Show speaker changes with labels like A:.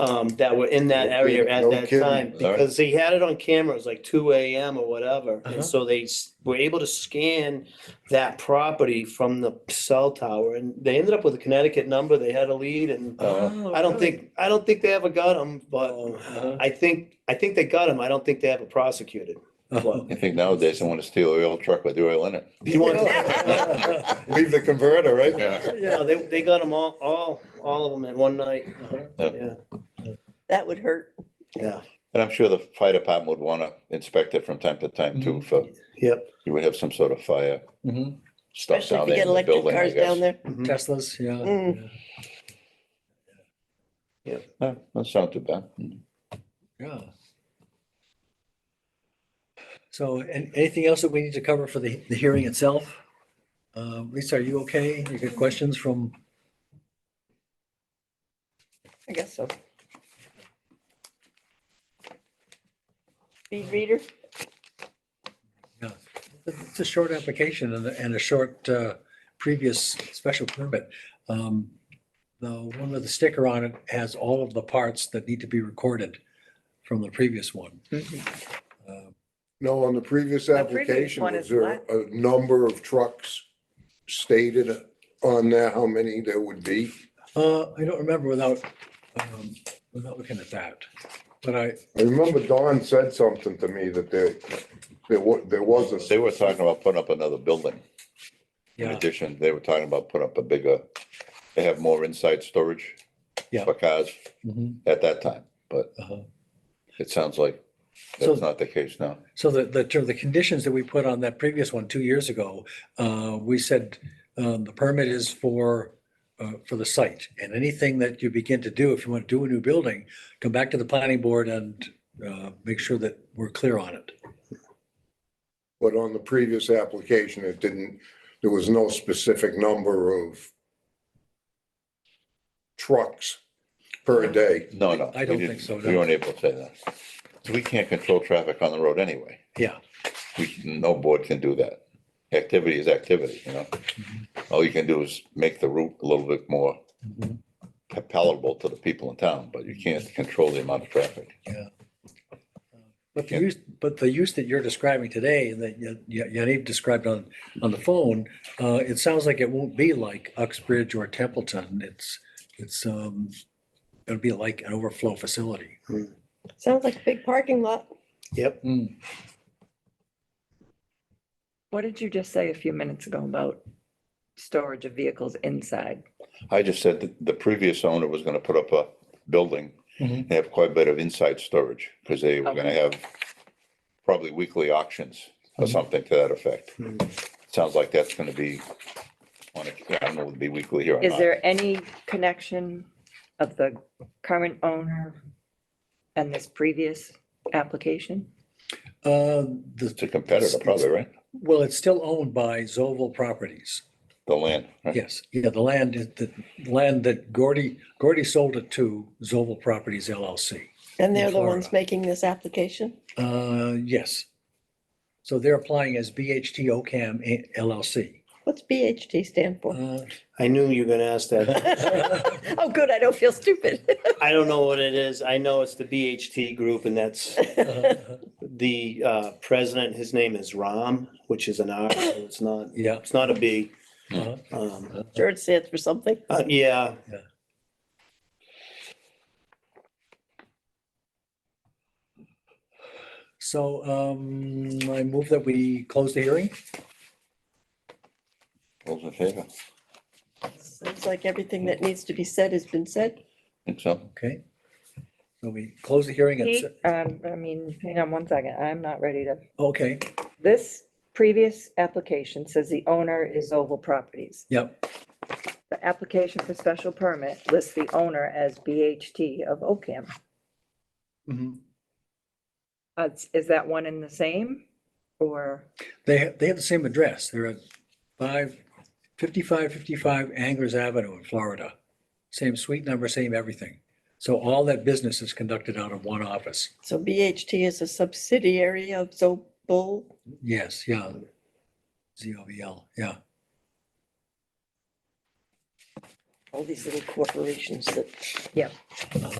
A: um, that were in that
B: No
A: area
B: kidding,
A: at
B: no
A: that
B: kidding.
A: time,
B: All right.
A: because they had it on camera, it was like two AM or whatever.
B: Uh-huh.
A: And so they s- were able to scan that property from the cell tower and they ended up with a Connecticut number, they had a lead and
B: Oh,
A: I don't think, I don't think they ever got them,
B: Oh,
A: but
B: uh-huh.
A: I think, I think they got them, I don't think they ever prosecuted.
B: Well,
C: I think nowadays they want to steal an oil truck with the oil in it.
A: You want-
B: Leave the converter, right?
C: Yeah.
A: No, they, they got them all, all, all of them at one night,
B: Uh-huh.
A: yeah,
D: That would hurt.
A: yeah,
C: And I'm sure the fire department would want to inspect it from time to time too, for
A: yep.
C: you would have some sort of fire
B: Mhm.
C: stuff
D: Especially if
C: down
D: you
C: there
D: get
C: in the
D: electric
C: building, I
D: cars down
C: guess.
D: there.
A: Mhm.
B: Teslas, yeah.
D: Mm.
B: yeah,
C: No, That sounds too bad.
B: Yeah. So, and anything else that we need to cover for the, the hearing itself? Uh, Lisa, are you okay? You got questions from,
D: I guess so. Speed reader?
B: it's a short application and, a- and a short, uh, previous special permit. Um, The one with the sticker on it has all of the parts that need to be recorded from the previous one. Uh,
E: No, on the previous
D: The previous
E: application,
D: one
E: was
D: is
E: there
D: what?
E: a number of trucks stated on there, how many there would be?
B: Uh, I don't remember without, um, without looking at that, but I,
E: I remember Don said something to me that there, there was, there was a,
C: They were talking about putting up another building. In
B: yeah,
C: addition, they were talking about putting up a bigger, they have more inside storage
B: Yeah.
C: for cars
B: mhm,
C: at that time, but
B: uh-huh.
C: it sounds like
B: So-
C: that's not the case now.
B: So the, the, ter- the conditions that we put on that previous one two years ago, uh, we said, um, the permit is for, uh, for the site. And anything that you begin to do, if you want to do a new building, come back to the planning board and, uh, make sure that we're clear on it.
E: but on the previous application, it didn't, there was no specific number of trucks per day.
C: No, no.
B: I don't
C: we
B: think
C: didn't-
B: so,
C: We
B: no.
C: weren't able to say that. So We can't control traffic on the road anyway.
B: Yeah.
C: We, no board can do that. Activity is activity, you know? All you can do is make the route a little bit more
B: Mhm.
C: pa- palatable to the people in town, but you can't control the amount of traffic.
B: But the
C: Yeah.
B: use, but the use that you're describing today, and that Ya- Ya- Yaniv described on, on the phone, uh, it sounds like it won't be like Uxbridge or Templeton. It's, it's, um, it'll be like an overflow facility.
D: Sounds like a big parking lot.
A: Yep,
F: What did you just say a few minutes ago about storage of vehicles inside?
C: I just said that the previous owner was gonna put up a building,
B: Mhm.
C: and have quite a bit of inside storage, because they were gonna have probably weekly auctions or
B: Mhm.
C: something to that effect.
A: Mhm.
C: Sounds like that's gonna be on a, I don't know, would be weekly here or
F: Is
C: not.
F: there any connection of the current owner and this previous application?
B: Uh, the,
C: It's a competitor probably, right?
B: well, it's still owned by Zoval Properties.
C: The land, right?
B: Yes, yeah, the land, is- the land that Gordy, Gordy sold it to Zoval Properties LLC.
D: And they're the
B: Florida.
D: ones making this application?
B: Uh, yes. So they're applying as BHT OCAM LLC.
D: What's BHD stand for?
B: Uh,
A: I knew you were gonna ask that.
D: Oh, good, I don't feel stupid.
A: I don't know what it is. I know it's the BHT group and that's
B: Uh,
A: the uh, president. His name is Ram, which is an R. So it's not,
B: Yeah.
A: it's not a B.
B: uh-huh.
A: Um,
D: Sure, it stands for something.
A: uh, yeah,
B: So um, I move that we close the hearing.
C: Those in favor?
D: Sounds like everything that needs to be said has been said.
C: Think so?
B: Okay. So we close the hearing. at
F: Pete,
B: se-
F: um, I mean, hang on one second, I'm not ready to.
B: Okay,
F: This previous application says the owner is Oval Properties.
B: yep.
F: The application for special permit lists the owner as BHT of Ocam.
B: Mhm.
F: Uh, Is that one and the same or?
B: They, ha- they have the same address. They're at five, fifty-five, fifty-five Angers Avenue in Florida. Same suite number, same everything. So all that business is conducted out of one office.
D: So BHT is a subsidiary of Zobel.
B: Yes, yeah. Z O V L, yeah.
D: all these little corporations that